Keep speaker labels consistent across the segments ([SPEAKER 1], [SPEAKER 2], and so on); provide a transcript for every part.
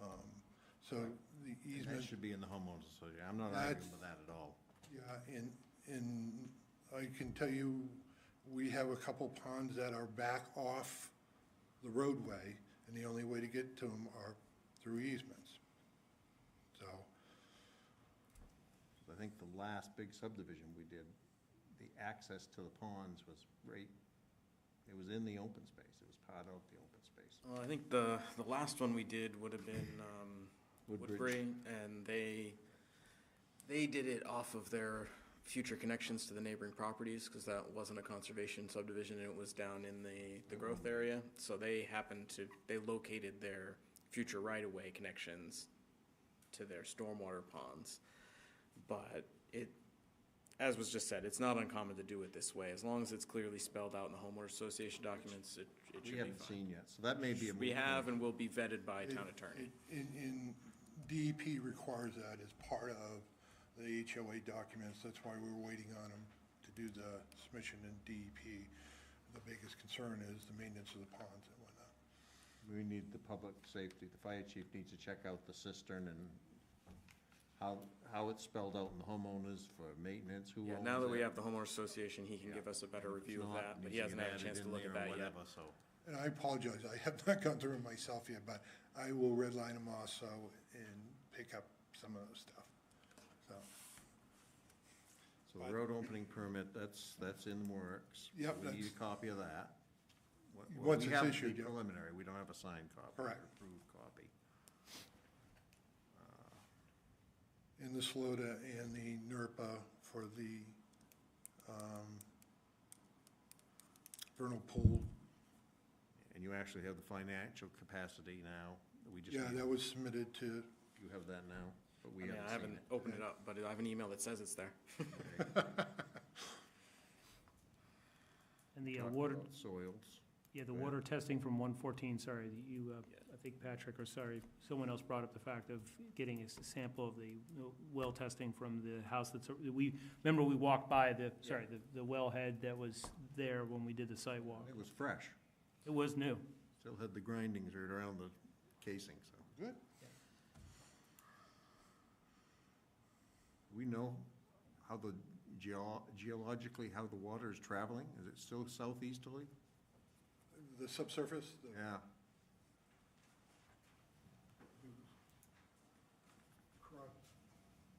[SPEAKER 1] Um, So the
[SPEAKER 2] And that
[SPEAKER 1] easement,
[SPEAKER 2] should be in the homeowners association. I'm not arguing
[SPEAKER 1] That's-
[SPEAKER 2] with that at all.
[SPEAKER 1] yeah, and, and I can tell you, we have a couple ponds that are back off the roadway, and the only way to get to them are through easements. So,
[SPEAKER 2] I think the last big subdivision we did, the access to the ponds was right, it was in the open space. It was part of the open space.
[SPEAKER 3] Well, I think the, the last one we did would have been um,
[SPEAKER 2] Woodbridge.
[SPEAKER 3] Woodbury, and they, they did it off of their future connections to the neighboring properties, because that wasn't a conservation subdivision, and it was down in the, the growth area. So they happened to, they located their future right-of-way connections to their stormwater ponds. But it, as was just said, it's not uncommon to do it this way. As long as it's clearly spelled out in the homeowner association documents, it it should
[SPEAKER 2] We
[SPEAKER 3] be fine.
[SPEAKER 2] haven't seen yet, so that may be a. moot
[SPEAKER 3] We have
[SPEAKER 2] point.
[SPEAKER 3] and will be vetted by town
[SPEAKER 1] It-
[SPEAKER 3] attorney.
[SPEAKER 1] it- In, in, DEP requires that as part of the HOA documents, that's why we're waiting on them to do the submission in DEP. The biggest concern is the maintenance of the ponds and whatnot.
[SPEAKER 2] We need the public safety, the fire chief needs to check out the cistern and how, how it's spelled out in the homeowners for maintenance, who owns it.
[SPEAKER 3] Yeah, now that we have the homeowner association, he can give
[SPEAKER 2] Yeah.
[SPEAKER 3] us a better review
[SPEAKER 2] It's
[SPEAKER 3] of
[SPEAKER 2] not,
[SPEAKER 3] that, but
[SPEAKER 2] needs
[SPEAKER 3] he hasn't
[SPEAKER 2] get
[SPEAKER 3] had a
[SPEAKER 2] added
[SPEAKER 3] chance to
[SPEAKER 2] in
[SPEAKER 3] look
[SPEAKER 2] there
[SPEAKER 3] at
[SPEAKER 2] or
[SPEAKER 3] that yet.
[SPEAKER 2] Whatever, so.
[SPEAKER 1] And I apologize, I have not gone through it myself yet, but I will redline them also and pick up some of those stuff. So,
[SPEAKER 2] So the road opening permit, that's, that's in the works.
[SPEAKER 1] Yep,
[SPEAKER 2] We need a
[SPEAKER 1] that's-
[SPEAKER 2] copy of that. What- what
[SPEAKER 1] Once
[SPEAKER 2] we
[SPEAKER 1] it's
[SPEAKER 2] have is the
[SPEAKER 1] issued, yep.
[SPEAKER 2] Preliminary, we don't have a signed copy. or
[SPEAKER 1] Correct.
[SPEAKER 2] Approved copy.
[SPEAKER 1] in the SLOTA and the NERPA for the, um, vernal pool.
[SPEAKER 2] And you actually have the financial capacity now, we just,
[SPEAKER 1] Yeah,
[SPEAKER 2] need-
[SPEAKER 1] that was submitted to,
[SPEAKER 2] you have that now, but
[SPEAKER 3] I
[SPEAKER 2] we
[SPEAKER 3] mean, I
[SPEAKER 2] haven't seen
[SPEAKER 3] haven't
[SPEAKER 2] it.
[SPEAKER 3] opened it up, but I have an email that says it's there.
[SPEAKER 4] And the uh,
[SPEAKER 2] Talked
[SPEAKER 4] water,
[SPEAKER 2] about Soils.
[SPEAKER 4] yeah, the
[SPEAKER 2] yeah.
[SPEAKER 4] water testing from 114, sorry, that you, uh,
[SPEAKER 3] Yeah.
[SPEAKER 4] I think Patrick, or sorry, someone else brought up the fact of getting a s- sample of the you know, well testing from the house that's, we, remember we walked by the, sorry, the the wellhead that was there when we did the site walk.
[SPEAKER 2] It was fresh,
[SPEAKER 4] It was new.
[SPEAKER 2] still had the grindings right around the casing, so.
[SPEAKER 1] good,
[SPEAKER 2] We know how the, geo- geologically, how the water is traveling, is it still southeasterly?
[SPEAKER 1] the subsurface, the-
[SPEAKER 2] Yeah,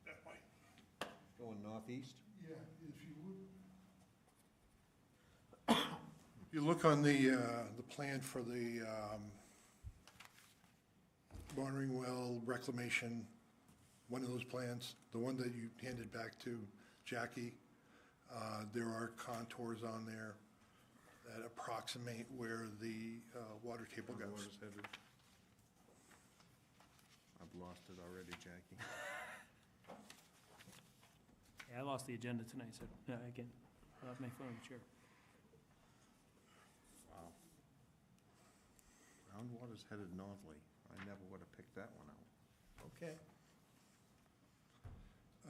[SPEAKER 1] that way.
[SPEAKER 2] going northeast?
[SPEAKER 1] Yeah, if you would. You look on the, uh, the plan for the um, watering well reclamation, one of those plans, the one that you handed back to Jackie, uh, there are contours on there that approximate where the uh, water table goes.
[SPEAKER 2] Water's heavy. I've lost it already, Jackie.
[SPEAKER 4] Yeah, I lost the agenda tonight, so, no, I can, I'll have my phone in the chair.
[SPEAKER 2] Groundwater's headed northly. I never would have picked that one out. Okay.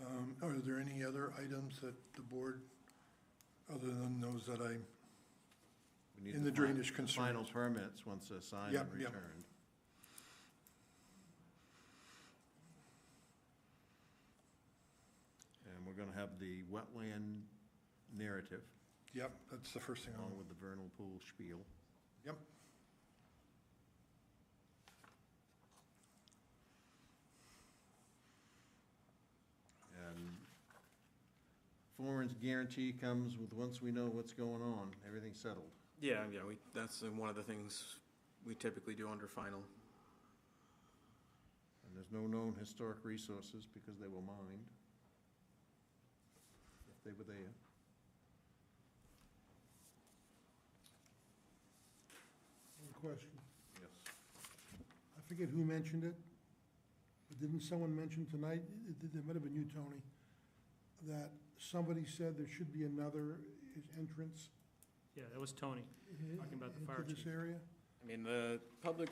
[SPEAKER 1] Um, Are there any other items that the board, other than those that I
[SPEAKER 2] We need
[SPEAKER 1] In the
[SPEAKER 2] fi-
[SPEAKER 1] drainage
[SPEAKER 2] Final
[SPEAKER 1] concerns.
[SPEAKER 2] permits, once they're signed and
[SPEAKER 1] Yep, yep.
[SPEAKER 2] returned. And we're gonna have the wetland narrative
[SPEAKER 1] Yep, that's the first thing on,
[SPEAKER 2] along with the vernal pool spiel.
[SPEAKER 1] yep.
[SPEAKER 2] And Florence guarantee comes with, once we know what's going on, everything's settled.
[SPEAKER 3] Yeah, yeah, we, that's uh, one of the things we typically do under final.
[SPEAKER 2] And there's no known historic resources because they were mined. If they were there.
[SPEAKER 5] One question.
[SPEAKER 2] Yes.
[SPEAKER 5] I forget who mentioned it, but didn't someone mention tonight, it- it it might have been you, Tony, that somebody said there should be another entrance
[SPEAKER 4] Yeah, that was Tony, talking about the fire
[SPEAKER 5] into this
[SPEAKER 4] chief.
[SPEAKER 5] area?
[SPEAKER 3] I mean, the public,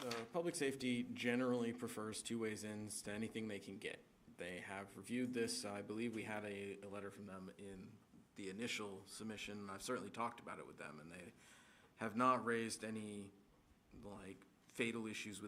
[SPEAKER 3] the public safety generally prefers two ways ins to anything they can get. They have reviewed this. I believe we had a, a letter from them in the initial submission. I've certainly talked about it with them and they have not raised any like fatal issues with